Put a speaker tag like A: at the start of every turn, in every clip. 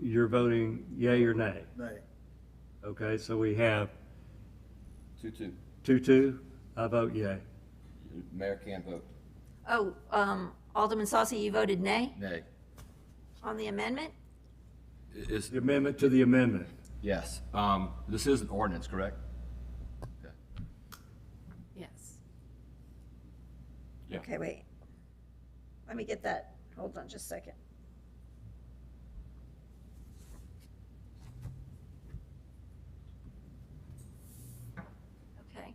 A: You're voting yea or nay?
B: Nay.
A: Okay, so we have
C: Two-two.
A: two-two. I vote yea.
C: Mayor can't vote.
D: Oh, um, Alderman Saucy, you voted nay
C: Nay.
D: on the amendment?
C: Is,
A: The amendment to the amendment.
C: yes, um, this is an ordinance, correct?
D: Yes.
C: Yeah.
D: Okay, wait. Let me get that. Hold on just a second. Okay,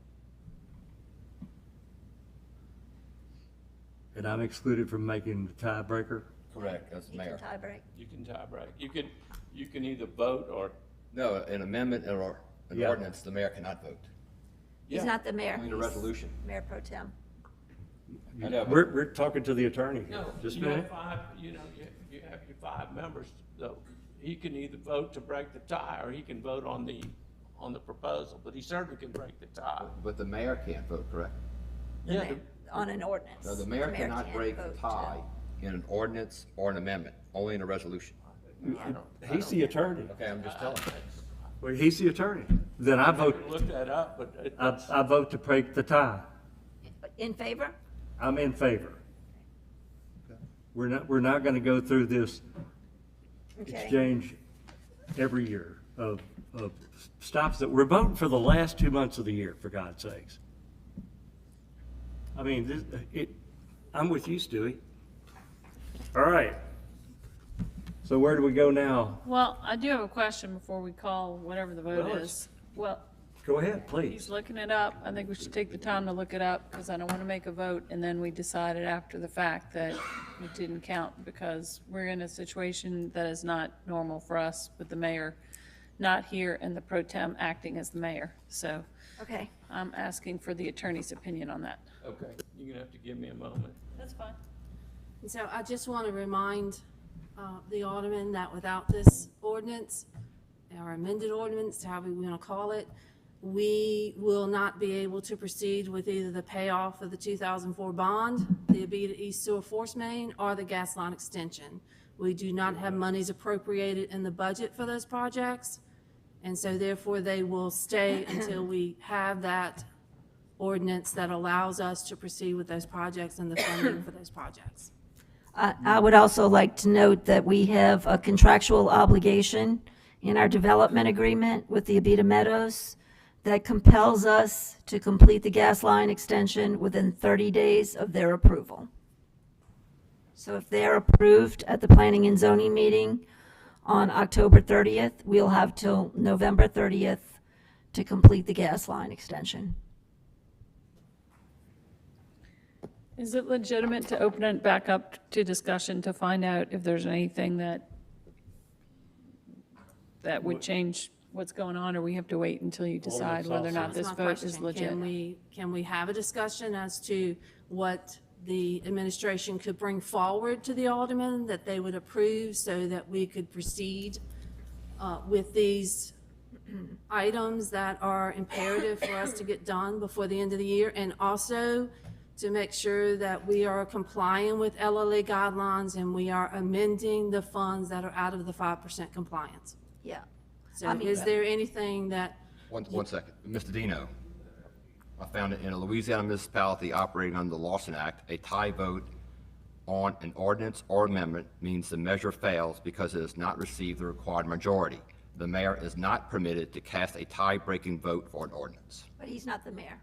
A: And I'm excluded from making the tiebreaker.
C: Correct, as
D: you can
C: mayor.
D: tie break.
E: You can tie break. You can, you can either vote or,
C: No, an amendment or an
A: Yeah.
C: ordinance, the mayor cannot vote.
D: He's
E: Yeah.
D: not the mayor.
C: We need a
D: He's
C: resolution.
D: Mayor Pro Tem.
C: I know, but-
A: We're, we're talking to the attorney. here.
E: no,
A: Just a
E: you have
A: minute.
E: five, you know, you, you have your five members, though. He can either vote to break the tie, or he can vote on the, on the proposal, but he certainly can break the tie.
C: But the mayor can't vote, correct?
D: the
E: Yeah,
D: ma- On an ordinance.
C: No, the mayor cannot
D: can't
C: break the
D: vote to-
C: tie in an ordinance or an amendment, only in a resolution.
A: He's the attorney.
C: Okay, I'm just telling you.
A: Well, he's the attorney. Then I vote,
E: Look that up, but it-
A: I, I vote to break the tie.
D: In favor?
A: I'm in favor. We're not, we're not gonna go through this
D: Okay.
A: exchange every year of, of stops that we're voting for the last two months of the year, for God's sakes. I mean, this, uh, it, I'm with you, Stewie. All right. So where do we go now?
F: Well, I do have a question before we call whatever the vote
A: Well, it's-
F: is. Well,
A: Go ahead,
F: he's
A: please.
F: looking it up. I think we should take the time to look it up because I don't want to make a vote and then we decided after the fact that it didn't count because we're in a situation that is not normal for us with the mayor not here and the pro tem acting as the mayor. So
D: Okay.
F: I'm asking for the attorney's opinion on that.
E: okay, you're gonna have to give me a moment.
F: That's fine.
G: And so I just want to remind uh, the Alderman that without this ordinance, our amended ordinance, however we want to call it, we will not be able to proceed with either the payoff of the 2004 bond, the Abita East Sewer Force Main, or the gas line extension. We do not have monies appropriated in the budget for those projects, and so therefore they will stay until we have that ordinance that allows us to proceed with those projects and the funding for those projects.
D: I I would also like to note that we have a contractual obligation in our development agreement with the Abita Meadows that compels us to complete the gas line extension within 30 days of their approval. So if they're approved at the Planning and Zoning meeting on October 30th, we'll have till November 30th to complete the gas line extension.
F: Is it legitimate to open it back up to discussion to find out if there's anything that, that would change what's going on, or we have to wait until you decide whether or not
G: That's
F: this
G: my
F: vote is
G: question.
F: legit?
G: Can we, can we have a discussion as to what the administration could bring forward to the aldermen that they would approve so that we could proceed uh, with these items that are imperative for us to get done before the end of the year? And also to make sure that we are complying with LLA guidelines and we are amending the funds that are out of the 5% compliance.
D: Yeah. I
G: So
D: mean-
G: is there anything that
C: One, one second. Mr. Dino, I found it in a Louisiana municipality operating under the Lawson Act, a tie vote on an ordinance or amendment means the measure fails because it has not received the required majority. The mayor is not permitted to cast a tie-breaking vote for an ordinance.
D: But he's not the mayor.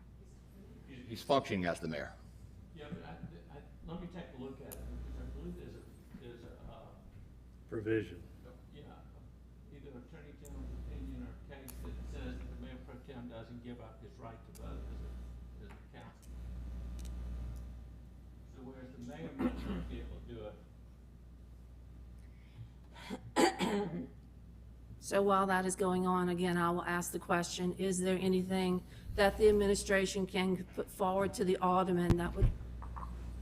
C: He's functioning as the mayor.
E: Yeah, but I, I, let me take a look at it, because I believe there's a, there's a, uh,
A: Provision.
E: yeah, either Attorney General's opinion or case that says that the mayor pro tem doesn't give up his right to vote as a, as a council. So whereas the mayor might not be able to do it,
G: So while that is going on, again, I will ask the question, is there anything that the administration can put forward to the aldermen that would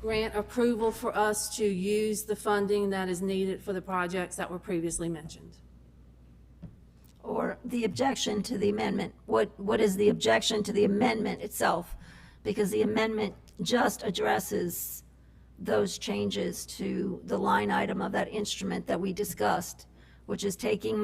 G: grant approval for us to use the funding that is needed for the projects that were previously mentioned?
D: or the objection to the amendment. What, what is the objection to the amendment itself? Because the amendment just addresses those changes to the line item of that instrument that we discussed which is taking